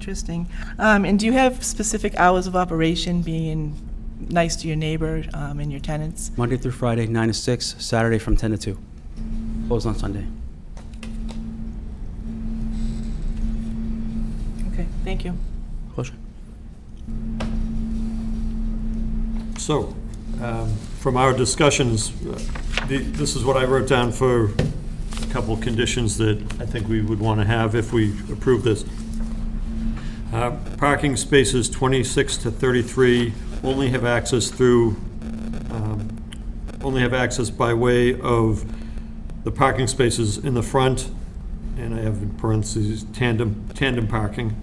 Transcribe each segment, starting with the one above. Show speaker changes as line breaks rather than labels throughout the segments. Interesting. Um, And do you have specific hours of operation, being nice to your neighbor um, and your tenants?
Monday through Friday, 9 to 6, Saturday from 10 to 2. Closed on Sunday.
Okay, thank you.
Question?
So, um, from our discussions, uh, the- this is what I wrote down for a couple of conditions that I think we would want to have if we approve this. Uh, Parking spaces 26 to 33 only have access through, um, only have access by way of the parking spaces in the front, and I have in parentheses tandem, tandem parking.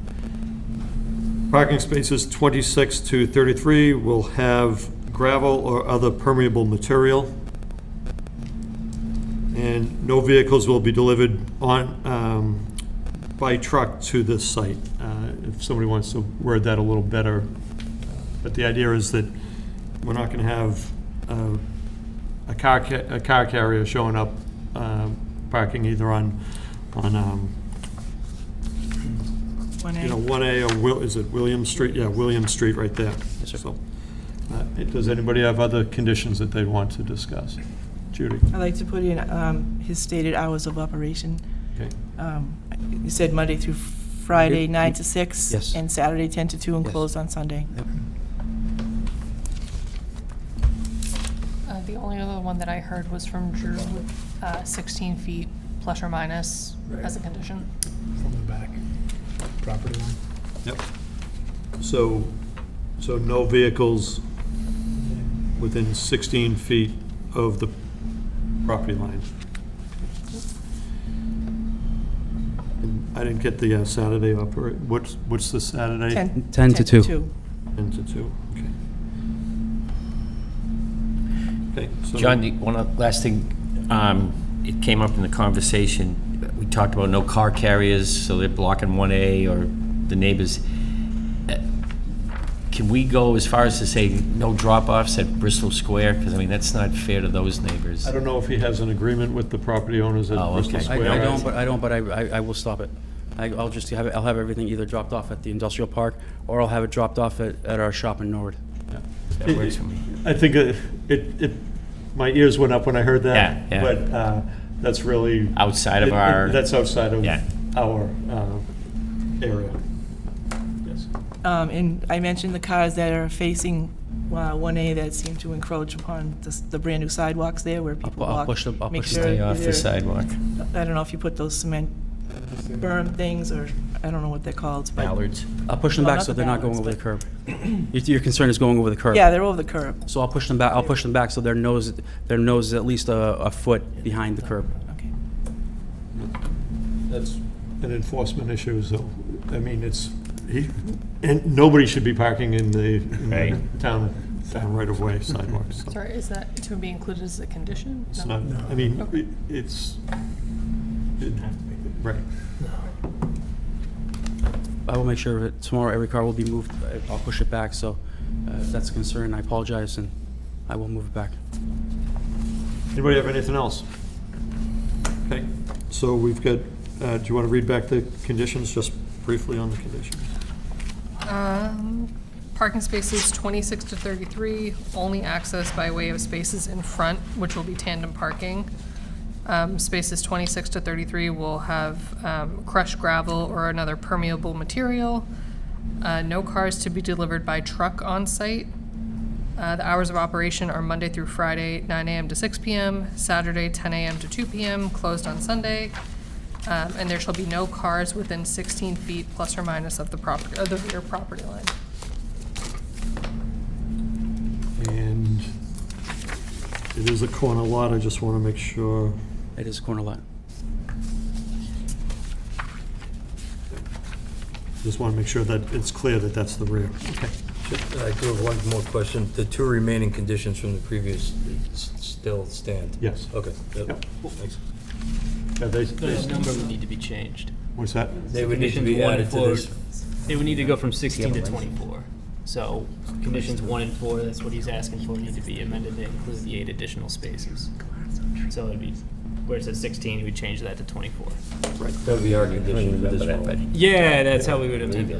Parking spaces 26 to 33 will have gravel or other permeable material. And no vehicles will be delivered on, um, by truck to this site. Uh, If somebody wants to word that a little better. But the idea is that we're not going to have uh, a car, ca- a car carrier showing up, um, parking either on, on um,
One
you know,
A.
one A, or Will, is it William Street? Yeah, William Street, right there.
Yes, sir.
So, uh, Does anybody have other conditions that they want to discuss? Judy?
I'd like to put in um, his stated hours of operation.
Okay.
Um, You said Monday through Friday, 9 to 6?
Yes.
And Saturday, 10 to 2, and
Yes.
closed on Sunday?
Uh, The only other one that I heard was from Drew, uh, 16 feet plus or minus as a condition.
from the back property line.
Yep. So, so no vehicles within 16 feet of the property line? And I didn't get the uh, Saturday operate, what's, what's the Saturday?
10
10 to 2.
10 to 2, okay. Okay. so-
John, the- one oth- last thing, um, it came up in the conversation, we talked about no car carriers, so they're blocking 1A or the neighbors. Uh, Can we go as far as to say no drop-offs at Bristol Square? Because, I mean, that's not fair to those neighbors.
I don't know if he has an agreement with the property owners at
Oh,
Bristol
okay.
I
Square.
I don't, but I don't, but I, I- I will stop it. I- I'll just have, it- I'll have everything either dropped off at the industrial park, or I'll have it dropped off at, at our shop in Norwood.
That works for me.
I think it, it, it- my ears went up when I heard that.
Yeah, yeah.
But uh, that's really.
Outside of
it- it-
our-
That's outside of
Yeah.
our uh, area. Yes.
Um, And I mentioned the cars that are facing uh, 1A that seem to encroach upon the s- the brand-new sidewalks there where people
pu- I'll
walk.
push the- I'll
Make
push the-
sure
Stay off
either-
the sidewalk.
I don't know if you put those cement berm things, or, I don't know what they're called, but,
Ballards.
I'll push them
Well,
back
not
so
the
they're not going
balance,
over the curb. Your, your concern is going over the curb.
yeah, they're over the curb.
So I'll push them back, I'll push them back so their nose, their nose is at least a, a foot behind the curb.
Okay.
That's an enforcement issue, so, I mean, it's, he, and nobody should be parking in the in the
Right.
town, town right-of-way sidewalks. so.
Sorry, is that to be included as a condition?
It's
No?
not, I mean, it- it's, it- right.
I will make sure that tomorrow every car will be moved. I- I'll push it back, so uh, if that's a concern, I apologize, and I will move it back.
Anybody have anything else? Okay, so we've got, uh, do you want to read back the conditions, just briefly on the conditions?
Um, Parking spaces 26 to 33, only access by way of spaces in front, which will be tandem parking. Um, Spaces 26 to 33 will have um, crushed gravel or another permeable material. Uh, No cars to be delivered by truck on site. Uh, The hours of operation are Monday through Friday, 9 AM to 6 PM, Saturday, 10 AM to 2 PM, closed on Sunday. Um, And there shall be no cars within 16 feet plus or minus of the property, of the rear property line.
And it is a corner lot, I just want to make sure.
It is a corner lot.
Just want to make sure that it's clear that that's the rear. Okay.
I do have one more question. The two remaining conditions from the previous s- still stand?
Yes.
Okay.
Yep.
yep, thanks.
Yeah, they- they-
The number would need to be changed.
What's that?
They would need to
Conditions
be
one
added
and
to
four-
this.
They would need to go from 16 to 24. So conditions one and four, that's what he's asking for, need to be amended to include the eight additional spaces. So it'd be, where it says 16, we change that to 24.
That would be our condition for this one.
Yeah, that's how we would amend it.